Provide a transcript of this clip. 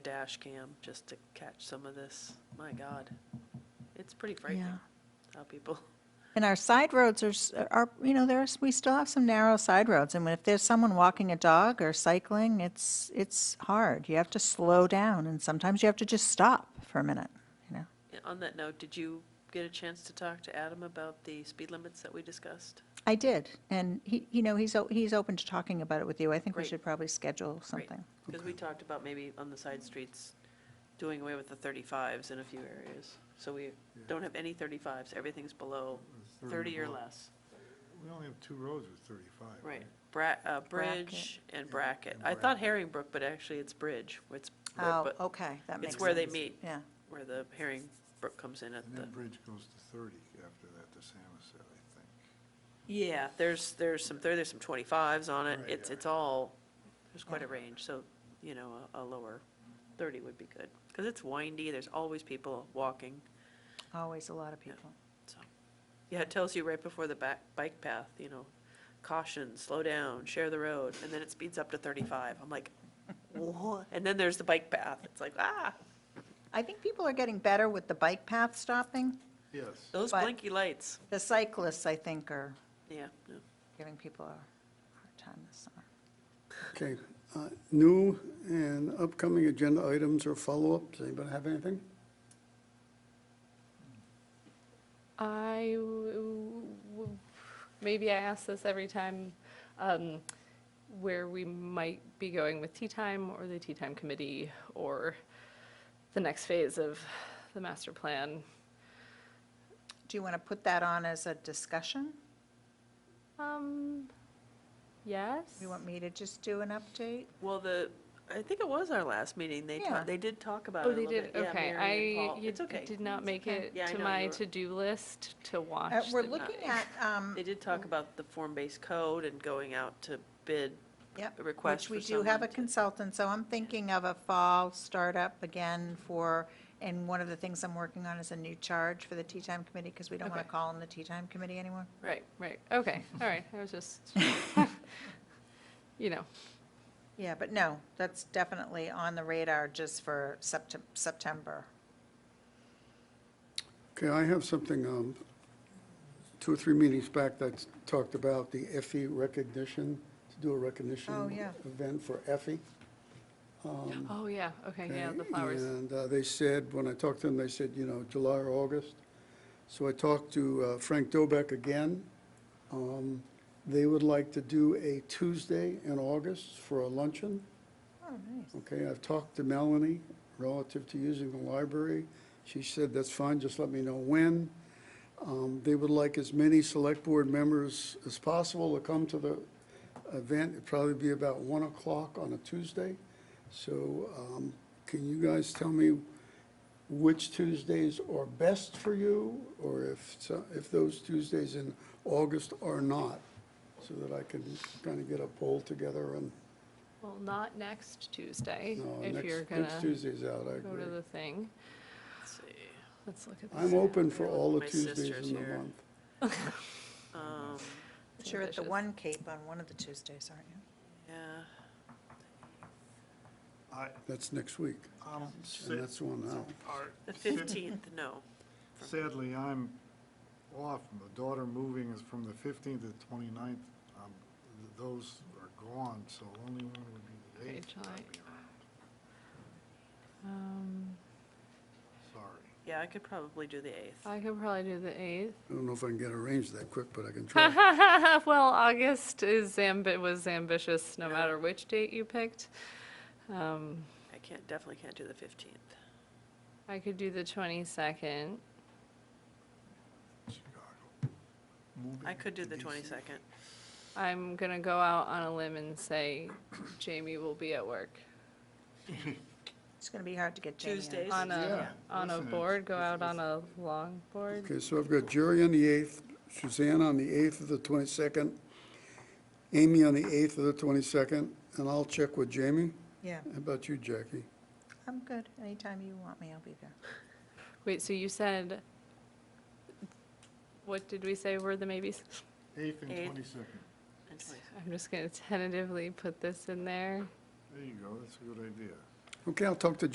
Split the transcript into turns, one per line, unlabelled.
dash cam just to catch some of this. My God, it's pretty
Yeah.
frightening how people,
And our side roads are, s- are, you know, there's, we still have some narrow side roads, and if there's someone walking a dog or cycling, it's, it's hard. You have to slow down, and sometimes you have to just stop for a minute, you know?
on that note, did you get a chance to talk to Adam about the speed limits that we discussed?
I did, and he, you know, he's, o- he's open to talking about it with you. I think we
Great.
should probably schedule something.
Because we talked about maybe on the side streets, doing away with the thirty-fives in a few areas. So we don't have any thirty-fives, everything's below thirty or
below.
less.
We only have two roads with thirty-five, right?
Right, Bra, uh,
Bracket.
Bridge and
And-
Bracket.
and
I thought
Bracket.
Herringbrook, but actually it's Bridge, where it's, where-
Oh,
but
okay, that makes sense.
it's where they meet,
Yeah,
where the Herringbrook comes in at
And
the.
then Bridge goes to thirty after that, to Samoset, I think.
Yeah, there's, there's some, there- there's some twenty-fives on it,
Right,
it's,
yeah.
it's all, there's quite a range, so, you know, a, a lower thirty would be good. Because it's windy, there's always people walking,
always a lot of people.
so. Yeah, it tells you right before the back, bike path, you know, caution, slow down, share the road, and then it speeds up to thirty-five, I'm like, what? And then there's the bike path, it's like, ah,
I think people are getting better with the bike path stopping.
Yes.
those
But-
blinky lights,
The cyclists, I think, are
yeah, no.
giving people a hard time this summer.
Okay, uh, new and upcoming agenda items or follow-up, does anybody have anything?
I, w- w- maybe I ask this every time, um, where we might be going with Tea Time or the Tea Time Committee or the next phase of the master plan.
Do you want to put that on as a discussion?
Um, yes?
You want me to just do an update?
Well, the, I think it was our last meeting, they, ta-
Yeah.
they did talk about it
Oh,
a
they
little
did,
bit. Yeah,
okay.
Mary and
I,
Paul.
you
It's okay.
did not make it
Yeah, I
to
know, you
my
were-
to-do list to watch.
Uh, We're
the-
looking at, um,
They did talk about the form-based code and going out to bid.
yep,
a request
which we
for
do have
someone
a
to-
consultant, so I'm thinking of a fall startup again for, and one of the things I'm working on is a new charge for the Tea Time Committee, because we don't want to
Okay.
call them the Tea Time Committee anymore.
Right, right, okay, all right, I was just, you know,
Yeah, but no, that's definitely on the radar just for Septem- September.
Okay, I have something, um, two or three meetings back that talked about the Effie recognition, to do a recognition
Oh, yeah.
event for E. Effie.
oh, yeah, okay, yeah, the flowers.
And uh, they said, when I talked to them, they said, you know, July or August. So I talked to uh, Frank Dobek again. Um, They would like to do a Tuesday in August for a luncheon.
Oh, nice.
Okay, I've talked to Melanie relative to using the library. She said, that's fine, just let me know when. Um, They would like as many select board members as possible to come to the event. It'd probably be about 1 o'clock on a Tuesday. So um, can you guys tell me which Tuesdays are best for you? Or if, so- if those Tuesdays in August are not? So that I can kind of get a poll together and
Well, not next Tuesday,
no,
if
next-
you're gonna
Next Tuesday's out, I
go
agree.
to the thing.
Let's see.
Let's look at this.
I'm open for
Yeah,
all the
my
Tuesdays
sister's
in the
here.
month.
Um,
But You're at the
Ambitious.
One Cape on one of the Tuesdays, aren't you?
yeah,
I,
That's next week,
I'm
and that's the one now.
the fifteenth, no.
Sadly, I'm off. My daughter moving is from the fifteenth to the twenty-ninth. Um, Those are gone, so only one would be the
Okay,
eighth. that I'd
July.
be around.
Um,
Sorry.
Yeah, I could probably do the eighth.
Uh,
I could probably do the eighth.
I don't know if I can get arranged that quick, but I can try.
Well, August is ambi, was ambitious, no matter which date you picked. Um,
I can't, definitely can't do the fifteenth.
I could do the twenty-second.
Chicago. Moving
I could do
to
the
DC.
twenty-second.
I'm gonna go out on a limb and say Jamie will be at work.
It's going to be hard to get Jamie on.
Tuesdays.
On a,
Yeah,
on a
listen, it's-
board, go
it's-
out on a long board.
Okay, so I've got Jerry on the 8th, Suzanne on the 8th of the 22nd, Amy on the 8th of the 22nd, and I'll check with Jamie.
Yeah,
How about you, Jackie?
I'm good. Anytime you want me, I'll be there.
Wait, so you said, what did we say were the maybes?
Eighth and
Eighth.
twenty-second.
and 22nd.
I'm just going to tentatively put this in there.
There you go, that's a good idea.
Okay, I'll talk to